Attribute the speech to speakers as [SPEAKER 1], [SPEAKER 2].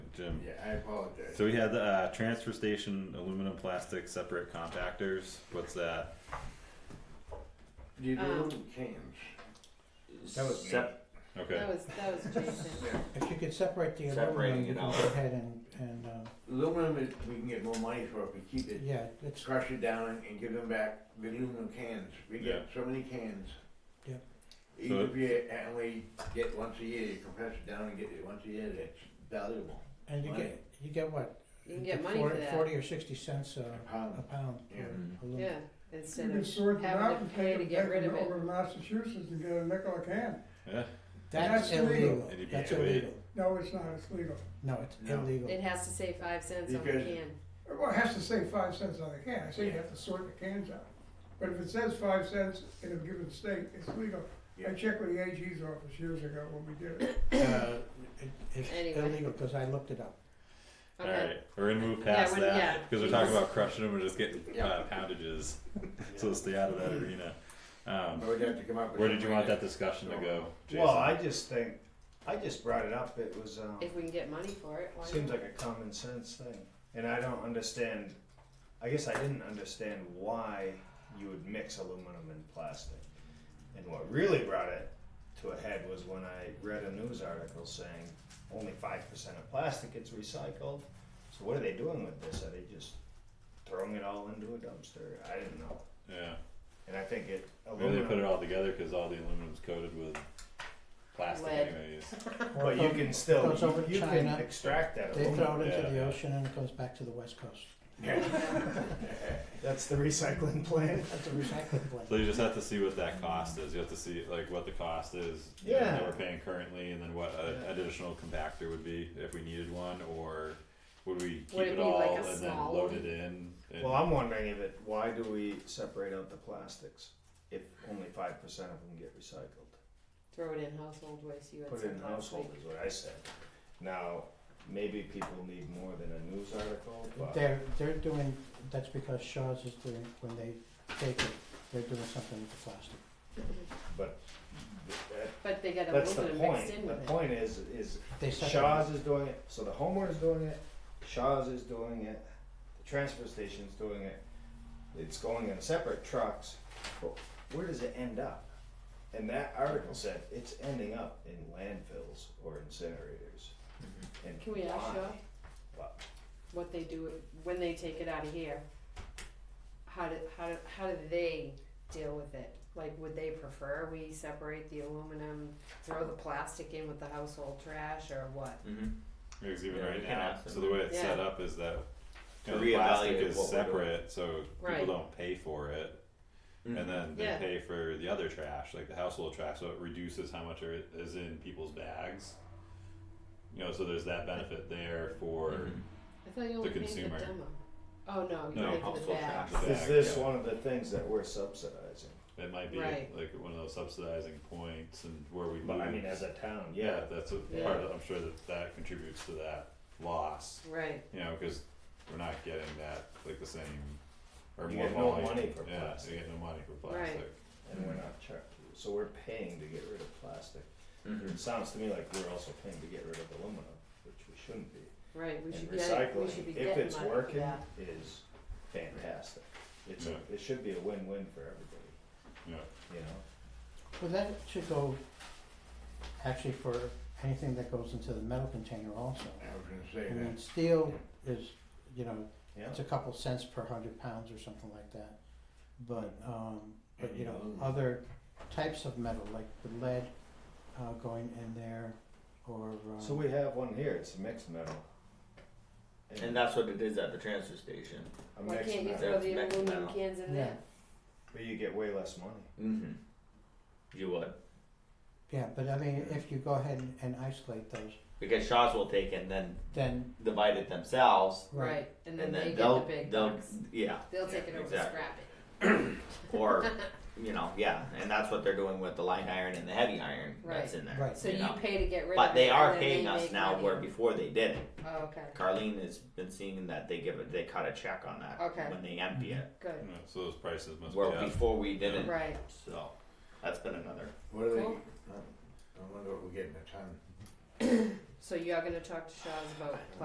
[SPEAKER 1] Jim.
[SPEAKER 2] Yeah, I apologize.
[SPEAKER 1] So we had the uh, transfer station aluminum plastic separate compactors. What's that?
[SPEAKER 2] You do
[SPEAKER 3] Um,
[SPEAKER 2] little cans.
[SPEAKER 4] That was me.
[SPEAKER 2] Sep-
[SPEAKER 1] Okay.
[SPEAKER 3] That was, that was Jason.
[SPEAKER 4] If you could separate the aluminum,
[SPEAKER 2] Separating
[SPEAKER 4] you
[SPEAKER 2] it
[SPEAKER 4] can go
[SPEAKER 2] out.
[SPEAKER 4] ahead and, and, uh,
[SPEAKER 2] Aluminum is, we can get more money for if we keep it.
[SPEAKER 4] yeah, it's,
[SPEAKER 2] Crush it down and give them back the aluminum cans. We get so many cans.
[SPEAKER 4] Yeah.
[SPEAKER 2] Even
[SPEAKER 1] So-
[SPEAKER 2] if you only get once a year, you compress it down and get it once a year, that's valuable.
[SPEAKER 4] and you
[SPEAKER 2] Money.
[SPEAKER 4] get, you get what?
[SPEAKER 3] You can get
[SPEAKER 4] The
[SPEAKER 3] money
[SPEAKER 4] four-
[SPEAKER 3] for that,
[SPEAKER 4] Forty or sixty cents
[SPEAKER 1] Uh,
[SPEAKER 2] A
[SPEAKER 4] a, a
[SPEAKER 2] pound.
[SPEAKER 4] pound.
[SPEAKER 2] Yeah.
[SPEAKER 4] for aluminum.
[SPEAKER 3] yeah, instead
[SPEAKER 5] You can sort
[SPEAKER 3] of
[SPEAKER 5] them out
[SPEAKER 3] having
[SPEAKER 5] and
[SPEAKER 3] to pay
[SPEAKER 5] take
[SPEAKER 3] to
[SPEAKER 5] them
[SPEAKER 3] get
[SPEAKER 5] back
[SPEAKER 3] rid
[SPEAKER 5] and
[SPEAKER 3] of it.
[SPEAKER 5] over to Massachusetts and get a nickel a can.
[SPEAKER 1] Yeah.
[SPEAKER 4] That's
[SPEAKER 5] That's illegal.
[SPEAKER 4] illegal,
[SPEAKER 1] And you'd be
[SPEAKER 4] that's
[SPEAKER 1] too late.
[SPEAKER 4] illegal,
[SPEAKER 5] No, it's not, it's legal.
[SPEAKER 4] no, it's
[SPEAKER 2] No.
[SPEAKER 4] illegal,
[SPEAKER 3] It has to say five cents on the
[SPEAKER 2] Because-
[SPEAKER 3] can.
[SPEAKER 5] Well, it has to say five cents on the can, I say you have to sort the cans out. But if it says five cents in a given state, it's legal. I
[SPEAKER 2] Yeah.
[SPEAKER 5] checked with the AG's office years ago when we did it.
[SPEAKER 4] uh, it, it's
[SPEAKER 3] Anyway.
[SPEAKER 4] illegal, cause I looked it up.
[SPEAKER 1] All
[SPEAKER 3] Oh, Okay,
[SPEAKER 1] right. We're gonna move past
[SPEAKER 3] Yeah, when- yeah.
[SPEAKER 1] that because we're talking about crushing them. We're just getting uh,
[SPEAKER 2] Yeah.
[SPEAKER 1] poundages. so stay out of that arena.
[SPEAKER 2] I
[SPEAKER 1] Um,
[SPEAKER 2] would have to come up with.
[SPEAKER 1] where did you
[SPEAKER 2] some
[SPEAKER 1] want
[SPEAKER 2] way
[SPEAKER 1] that discussion to go, Jason?
[SPEAKER 6] Well, I just think, I just brought it up, it was, um,
[SPEAKER 3] if we can get money for it, why
[SPEAKER 6] seems
[SPEAKER 3] not?
[SPEAKER 6] like a common sense thing. And I don't understand, I guess I didn't understand why you would mix aluminum and plastic. And what really brought it to a head was when I read a news article saying only five percent of plastic gets recycled. So what are they doing with this? Are they just throwing it all into a dumpster? I didn't know.
[SPEAKER 1] yeah.
[SPEAKER 6] And I think it
[SPEAKER 1] Maybe they
[SPEAKER 6] aluminum,
[SPEAKER 1] put it all together because all the aluminum's coated with plastic,
[SPEAKER 3] Lead.
[SPEAKER 1] anyways.
[SPEAKER 6] but you can still,
[SPEAKER 4] Goes over to
[SPEAKER 6] you, you can
[SPEAKER 4] China.
[SPEAKER 6] extract that
[SPEAKER 4] They
[SPEAKER 6] aluminum.
[SPEAKER 4] throw it into
[SPEAKER 1] yeah.
[SPEAKER 4] the ocean and it goes back to the west coast,
[SPEAKER 6] That's the recycling plan.
[SPEAKER 4] that's a recycling plant.
[SPEAKER 1] So you just have to see what that cost is. You have to see like what the cost is you know, that
[SPEAKER 6] Yeah.
[SPEAKER 1] we're paying currently, and then what a,
[SPEAKER 6] Yeah.
[SPEAKER 1] additional compactor would be if we needed one, or would we keep
[SPEAKER 3] Would it
[SPEAKER 1] it,
[SPEAKER 3] be
[SPEAKER 1] all
[SPEAKER 3] like a
[SPEAKER 1] and then
[SPEAKER 3] small
[SPEAKER 1] load
[SPEAKER 3] one?
[SPEAKER 1] it in? And,
[SPEAKER 6] Well, I'm wondering if it, why do we separate out the plastics if only five percent of them get recycled?
[SPEAKER 3] Throw it in household waste, you had
[SPEAKER 6] Put it
[SPEAKER 3] said
[SPEAKER 6] in
[SPEAKER 3] last week.
[SPEAKER 6] household is what I said. Now, maybe people need more than a news article, but
[SPEAKER 4] They're, they're doing, that's because Shaw's is doing, when they take it, they're doing something with the plastic.
[SPEAKER 6] but that,
[SPEAKER 3] But they got
[SPEAKER 6] that's the
[SPEAKER 3] aluminum
[SPEAKER 6] point.
[SPEAKER 3] mixed in
[SPEAKER 6] The
[SPEAKER 3] with it.
[SPEAKER 6] point is, is
[SPEAKER 4] They separate,
[SPEAKER 6] Shaw's is doing it, so the homeowner's doing it, Shaw's is doing it, the transfer station's doing it. It's going in separate trucks, but where does it end up? And that article said it's ending up in landfills or incinerators. And
[SPEAKER 3] Can we ask
[SPEAKER 6] why?
[SPEAKER 3] Shaw
[SPEAKER 6] But
[SPEAKER 3] what they do, when they take it out of here? How do, how do, how do they deal with it? Like, would they prefer we separate the aluminum, throw the plastic in with the household trash, or what?
[SPEAKER 2] Mhm.
[SPEAKER 1] because even
[SPEAKER 2] Yeah, we
[SPEAKER 1] right
[SPEAKER 2] can
[SPEAKER 1] now,
[SPEAKER 2] ask them.
[SPEAKER 1] so the way it's set
[SPEAKER 3] Yeah.
[SPEAKER 1] up is that you
[SPEAKER 2] To
[SPEAKER 1] know, the plastic
[SPEAKER 2] reevaluate
[SPEAKER 1] is
[SPEAKER 2] what we're doing.
[SPEAKER 1] separate, so
[SPEAKER 3] Right.
[SPEAKER 1] people don't pay for it, and then they
[SPEAKER 3] Yeah.
[SPEAKER 1] pay for the other trash, like the household trash. So it reduces how much are, is in people's bags. You know, so there's that benefit there for.
[SPEAKER 3] Mm-hmm.
[SPEAKER 2] Mm-hmm.
[SPEAKER 3] I thought you only
[SPEAKER 1] The
[SPEAKER 3] paid the
[SPEAKER 1] consumer.
[SPEAKER 3] demo. Oh, no, you
[SPEAKER 1] No,
[SPEAKER 3] paid for the
[SPEAKER 1] household
[SPEAKER 3] bags.
[SPEAKER 1] trash.
[SPEAKER 6] is
[SPEAKER 1] Back,
[SPEAKER 6] this
[SPEAKER 1] yeah.
[SPEAKER 6] one of the things that we're subsidizing?
[SPEAKER 1] It might be
[SPEAKER 3] Right.
[SPEAKER 1] like one of those subsidizing points and where we
[SPEAKER 6] But
[SPEAKER 1] lose.
[SPEAKER 6] I mean, as a town,
[SPEAKER 1] yeah,
[SPEAKER 6] yeah,
[SPEAKER 1] that's a
[SPEAKER 3] Yeah.
[SPEAKER 1] part. Of, I'm sure that that contributes to that loss.
[SPEAKER 3] Right,
[SPEAKER 1] You know, because we're not getting that like the same or
[SPEAKER 6] You
[SPEAKER 1] more
[SPEAKER 6] get no
[SPEAKER 1] volume.
[SPEAKER 6] money for
[SPEAKER 1] yeah,
[SPEAKER 6] plastic.
[SPEAKER 1] You get no money for
[SPEAKER 3] Right.
[SPEAKER 1] plastic.
[SPEAKER 6] and we're not charged, so we're paying to get rid of plastic.
[SPEAKER 2] Mhm.
[SPEAKER 3] Mm-hmm.
[SPEAKER 6] It sounds to me like we're also paying to get rid of aluminum, which we shouldn't be.
[SPEAKER 3] right, we
[SPEAKER 6] and
[SPEAKER 3] should get, we should be
[SPEAKER 6] recycling, if
[SPEAKER 3] getting
[SPEAKER 6] it's
[SPEAKER 3] money for
[SPEAKER 6] working,
[SPEAKER 3] that.
[SPEAKER 6] is fantastic. It's,
[SPEAKER 1] Yeah.
[SPEAKER 6] a- it should be a win-win for everybody,
[SPEAKER 1] Yeah.
[SPEAKER 6] you know?
[SPEAKER 4] well, that should go, actually for anything that goes into the metal container also.
[SPEAKER 2] I was gonna
[SPEAKER 4] I
[SPEAKER 2] say
[SPEAKER 1] Mm-hmm.
[SPEAKER 4] mean,
[SPEAKER 2] that.
[SPEAKER 4] steel is, you know, it's
[SPEAKER 6] Yeah,
[SPEAKER 4] a couple cents per hundred pounds or something like that. But, um, but you know,
[SPEAKER 6] Mm.
[SPEAKER 2] Mhm.
[SPEAKER 4] other types of metal, like the lead, uh, going in there, or, um.
[SPEAKER 6] so we have one here, it's a mixed metal.
[SPEAKER 7] And that's what it is at the transfer station.
[SPEAKER 6] A
[SPEAKER 3] Why
[SPEAKER 6] mixed
[SPEAKER 3] can't you
[SPEAKER 6] metal,
[SPEAKER 3] throw the
[SPEAKER 7] Mixed
[SPEAKER 3] aluminum
[SPEAKER 7] metal.
[SPEAKER 3] cans in
[SPEAKER 4] Yeah.
[SPEAKER 3] there?
[SPEAKER 6] but you get way less money.
[SPEAKER 7] Mm-hmm. You would.
[SPEAKER 4] Yeah, but I mean, if you go ahead and- and isolate those,
[SPEAKER 7] Because Shaw's will take it and then
[SPEAKER 4] then,
[SPEAKER 7] divide it themselves.
[SPEAKER 4] right,
[SPEAKER 3] Right, and then they get
[SPEAKER 7] will
[SPEAKER 3] the big
[SPEAKER 7] they'll
[SPEAKER 3] bucks.
[SPEAKER 7] yeah.
[SPEAKER 3] They'll take it over and
[SPEAKER 7] exactly.
[SPEAKER 3] scrap
[SPEAKER 7] Or you know, yeah. And that's what they're doing with the light iron and the heavy iron that's
[SPEAKER 3] Right.
[SPEAKER 7] in there.
[SPEAKER 4] Right.
[SPEAKER 3] it. So
[SPEAKER 7] you
[SPEAKER 3] you
[SPEAKER 7] know.
[SPEAKER 3] pay to get rid of it.
[SPEAKER 7] But they
[SPEAKER 3] and
[SPEAKER 7] are
[SPEAKER 3] then
[SPEAKER 7] paying
[SPEAKER 3] they
[SPEAKER 7] us
[SPEAKER 3] make
[SPEAKER 7] now
[SPEAKER 3] money.
[SPEAKER 7] where before they didn't.
[SPEAKER 3] Oh, okay,
[SPEAKER 7] Carlene has been seeing that they give it they cut a check on that
[SPEAKER 3] Okay.
[SPEAKER 7] when they empty it.
[SPEAKER 3] good,
[SPEAKER 1] Yeah, So those prices must
[SPEAKER 7] Where
[SPEAKER 1] be up.
[SPEAKER 7] before we didn't.
[SPEAKER 3] right,
[SPEAKER 7] So that's been another
[SPEAKER 2] What are they,
[SPEAKER 3] Cool.
[SPEAKER 2] I wonder what we're getting a ton.
[SPEAKER 3] so you are gonna talk to Shaw's about